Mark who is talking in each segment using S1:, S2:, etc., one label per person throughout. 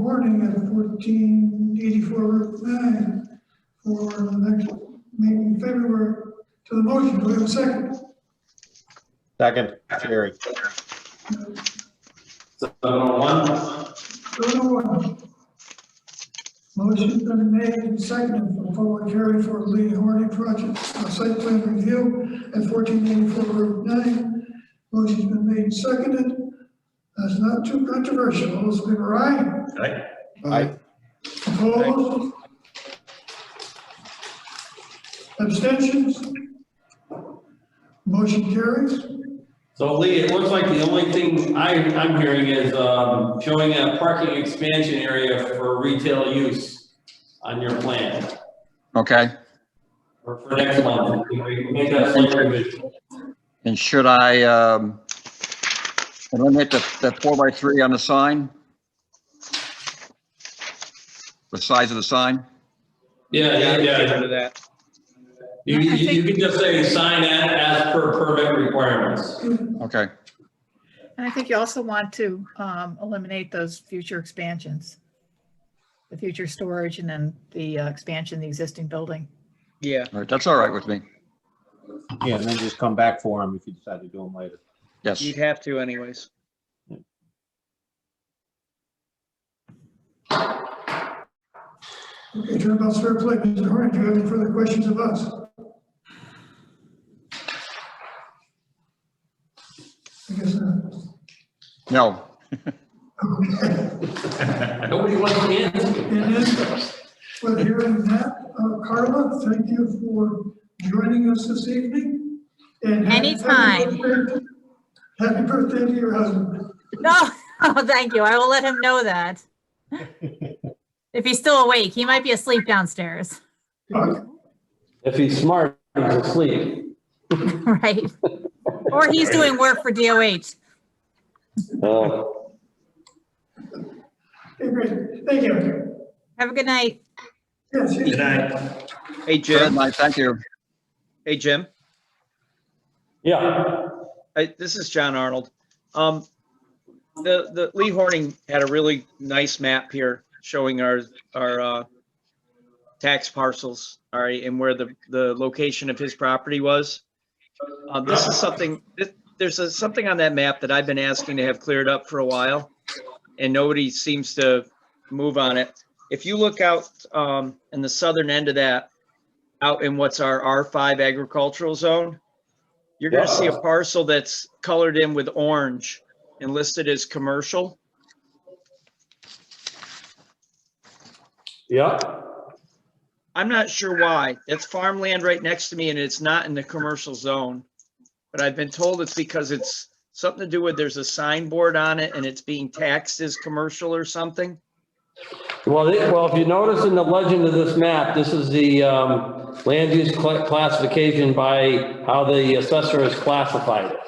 S1: wording of fourteen eighty-four Route nine for the next meeting in February to the motion. Do we have a second?
S2: Second, Jerry.
S3: Seven oh one,
S1: Go to one. Motion's been made and seconded for public hearing for Lee Horning project, uh, site plan review at fourteen eighty-four Route nine. Motion's been made and seconded. That's not too controversial. All those in favor, aye?
S3: Aye.
S2: Aye.
S1: Opposed? Abstentions? Motion carries.
S3: so Lee, it looks like the only thing I, I'm hearing is, um, showing a parking expansion area for retail use on your plan
S4: Okay,
S3: for, for next month. Can we Make that a slight revision.
S4: and should I, um, eliminate the, the four by three on the sign? The size of the sign?
S3: Yeah, yeah, yeah.
S2: that.
S3: You,
S5: I
S3: you you
S5: think-
S3: can just say sign as, as per permit requirements.
S4: Okay,
S5: And I think you also want to um, eliminate those future expansions. The future storage and then the uh, expansion, of the existing building.
S6: Yeah,
S4: all right, that's all right with me.
S2: Yeah, and then just come back for him if you decide to do them later.
S4: Yes,
S6: you'd have to anyways.
S1: Okay, turnabout's fair play. Mr. Horn, do you have any further questions of us? I guess not.
S4: no,
S1: Okay.
S3: Nobody wants to answer.
S1: And then, well, hearing that, uh, Carla, thank you for joining us this evening. And happy-
S7: Anytime.
S1: Happy birthday to your husband.
S7: No, oh, thank you. I will let him know that. If he's still awake, he might be asleep downstairs,
S1: Okay.
S3: If he's smart, he's asleep.
S7: right? Or he's doing work for DOH.
S3: Oh.
S1: Okay, great. Thank you.
S7: Have a good night.
S1: Yes. yes.
S6: Hey,
S4: good
S6: Jim,
S4: night, thank you.
S6: hey, Jim,
S3: Yeah.
S6: I, this is John Arnold. Um, the, the Lee Horning had a really nice map here showing our, our, uh, tax parcels, all right, and where the, the location of his property was. Uh, this is something, this- there's a- something on that map that I've been asking to have cleared up for a while, and nobody seems to move on it. If you look out, um, in the southern end of that, out in what's our R5 agricultural zone, you're gonna see a parcel that's colored in with orange and listed as commercial.
S3: Yeah.
S6: I'm not sure why. That's farmland right next to me and it's not in the commercial zone. But I've been told it's because it's something to do with, there's a signboard on it and it's being taxed as commercial or something.
S3: Well, it- well, if you notice in the legend of this map, this is the um, land use cla- classification by how the assessor has classified it.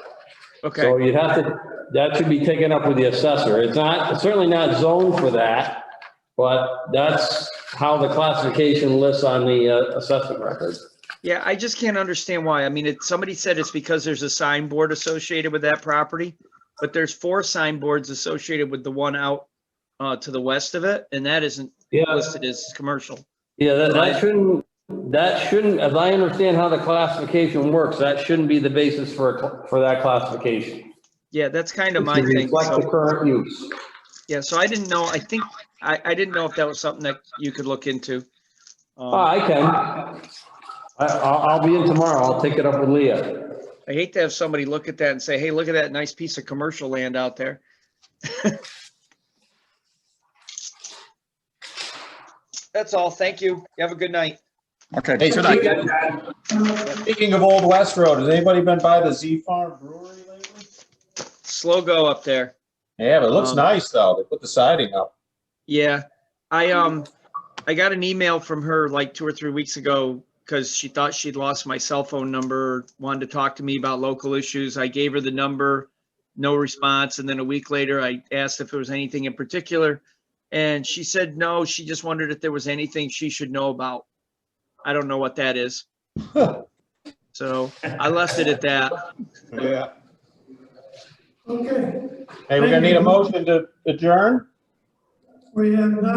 S6: Okay,
S3: So you'd have to, that should be taken up with the assessor. It's not, it's certainly not zoned for that, but that's how the classification lists on the uh, assessment record.
S6: yeah, I just can't understand why. I mean, it, somebody said it's because there's a signboard associated with that property. But there's four signboards associated with the one out, uh, to the west of it, and that isn't
S3: Yeah,
S6: listed as commercial.
S3: yeah, that- that shouldn't, that shouldn't, as I understand how the classification works, that shouldn't be the basis for, a cl- for that classification.
S6: Yeah, that's kind
S3: It
S6: of my
S3: should
S6: thing.
S3: Reflect the
S6: so-
S3: current use.
S6: Yeah, so I didn't know, I think, I, I didn't know if that was something that you could look into.
S3: Oh,
S6: Um,
S3: I can. I, I'll, I'll be in tomorrow. I'll take it up with Leah.
S6: I hate to have somebody look at that and say, hey, look at that nice piece of commercial land out there. That's all. Thank you. You Have a good night.
S4: Okay,
S2: Hey,
S4: good night.
S2: Speaking of Old West Road, has anybody been by the Z Farm Brewery lately?
S6: Slow go up there.
S2: Yeah, but it looks
S6: Um,
S2: nice though. They put the siding up.
S6: Yeah, I, um, I got an email from her like two or three weeks ago because she thought she'd lost my cell phone number, wanted to talk to me about local issues. I gave her the number, no response. And then a week later, I asked if there was anything in particular. And she said, no, she just wondered if there was anything she should know about. I don't know what that is. So I left it at that.
S2: Yeah.
S1: Okay.
S2: Hey, we're gonna need a motion to adjourn?
S1: We have uh, not